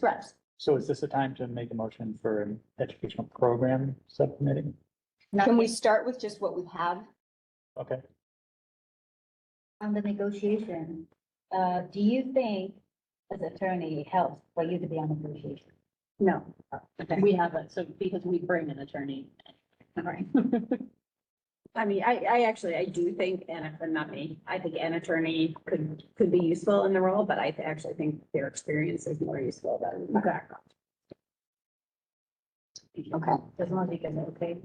Correct. So is this a time to make a motion for an educational program subcommittee? Can we start with just what we have? Okay, On the negotiation, uh, do you think as attorney it helps for you to be on negotiation? No, Okay. we haven't, so because we bring an attorney. All right. I mean, I, I actually, I do think, and not me, I think an attorney could, could be useful in the role, but I actually think their experience is more useful than my background. Okay. As long as you guys are okay.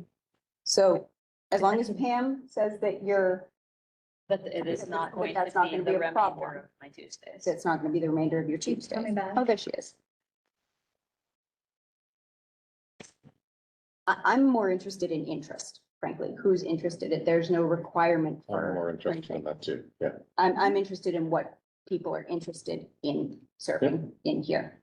So as long as Pam says that you're, But it is But not going that's to not be gonna be a the remainder problem. of my Tuesdays. it's not going to be the remainder of your Keeps Tuesday. coming back. Oh, there she is. I, I'm more interested in interest, frankly, who's interested in, there's no requirement I'm for, more interested in that too, yeah. I'm, I'm interested in what people are interested in serving in here.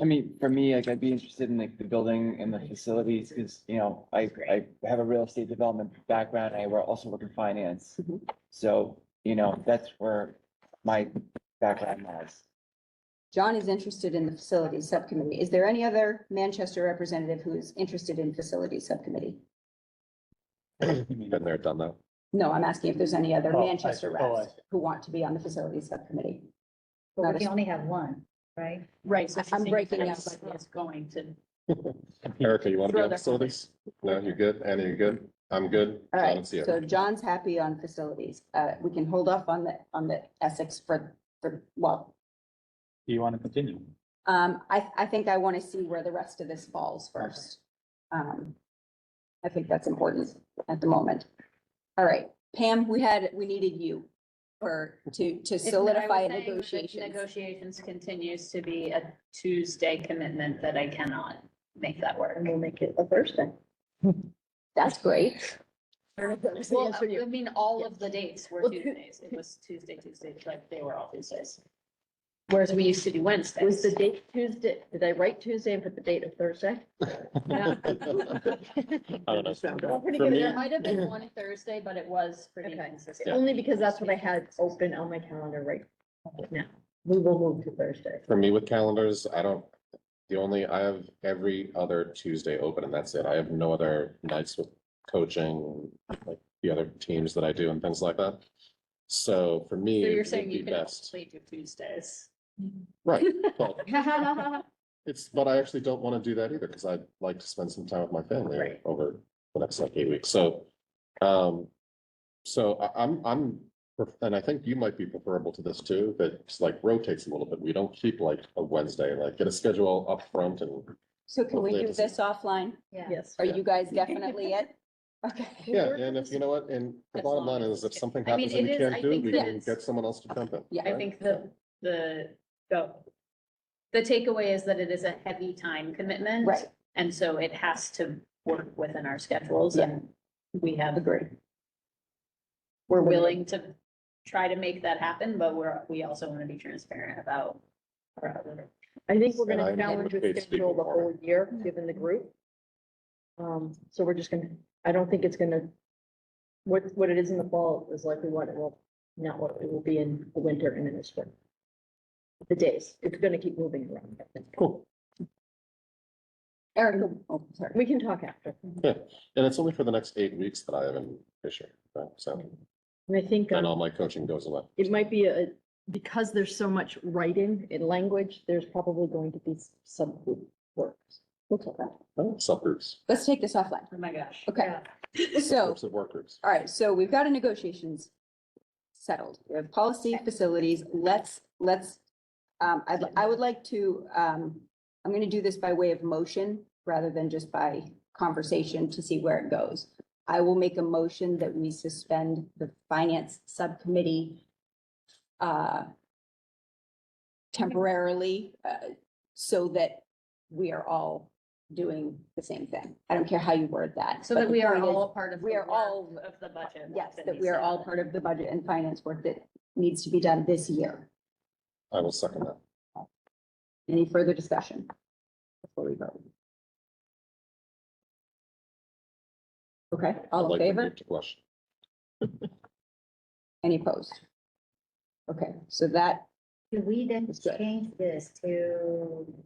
I mean, for me, like, I'd be interested in like the building and the facilities, because, you know, I, I have a real estate development background, I were- also work in finance. Mhm. So, you know, that's where my background lies. John is interested in the facilities subcommittee. Is there any other Manchester representative who is interested in facilities subcommittee? Been there, done that. No, I'm asking if there's any other Oh, I- Manchester oh, I reps who want to be on the facilities subcommittee. But we can only have one, right? Right, so she's saying yes. It's going to. Erica, you want to be Throw on their- facilities? No, you're good. Anna, you're good. I'm good. All I right, don't see it. so John's happy on facilities. Uh, we can hold off on the, on the Essex for, for, well, do you want to continue? um, I, I think I want to see where the rest of this falls first. Um, I think that's important at the moment. All right, Pam, we had, we needed you for, to, to If- I was solidify saying that negotiations. Negotiations continues to be a Tuesday commitment that I cannot make that work. And we'll make it a Thursday. That's great. Well, uh, I mean, all Yeah. of the dates were Well, who- Tuesdays. It was Tuesday, Tuesday, like they were all Tuesdays. Whereas we used to do Wednesdays. Was the date Tuesday, did I write Tuesday and put the date of Thursday? I don't know. Pretty For good me- There might have been one Thursday, but it was pretty Okay. consistent. Only because that's what I had open on my calendar right now. We will move to Thursday. For me with calendars, I don't, the only, I have every other Tuesday open and that's it. I have no other nights with coaching, like the other teams that I do and things like that. So for me, So you're it would saying be you can best. only do Tuesdays. Right. Well, It's, but I actually don't want to do that either because I'd like to spend some time with my family Right. over the next like eight weeks. So, um, so I, I'm, I'm, and I think you might be preferable to this too, that it's like rotates a little bit. We don't keep like a Wednesday, like get a schedule up front and, So can we Hopefully it do doesn't- this offline? Yeah. Yes. Are Yeah. you guys definitely it? Okay, yeah, and if, you know what, and the As bottom long line as is if it's- something I mean, happens and it we is- I can't do, it, think we that can it's- get someone else to jump in. Yeah, I right? think the, the, the, the takeaway is that it is a heavy time commitment. right, And so it has to work within our schedules Yeah. and we have, agree. we're willing to try to make that happen, but we're, we also want to be transparent about our other I think we're And gonna I'm challenge okay with to speak schedule the more. whole year, given the group. Um, so we're just gonna, I don't think it's gonna, what, what it is in the fall is likely what it will, not what it will be in the winter and in the spring. The days, it's gonna keep moving around. Cool. Erica, oh, sorry. We can talk after. Yeah. And it's only for the next eight weeks that I have in Fisher. right? So And I think. um, then all my coaching goes away. it might be a, because there's so much writing in language, there's probably going to be s- subgroup works. We'll take that. Oh, Subgroups, Let's take this offline. Oh my gosh. Okay, so, groups of work groups. all right, so we've got a negotiations settled. We have policy facilities. Let's, let's, um, I, I would like to, um, I'm going to do this by way of motion rather than just by conversation to see where it goes. I will make a motion that we suspend the finance subcommittee uh, temporarily, uh, so that we are all doing the same thing. I don't care how you word that. So but that the we are point is- all part of. we the are work all- Of the budget. Yes, that we are all part of the budget and finance work that needs to be done this year. I will second that. Any further discussion? Before we vote. Okay, I'd all in like to favor? move to Question. Any opposed? Okay, so that Do we then Let's do it. change this to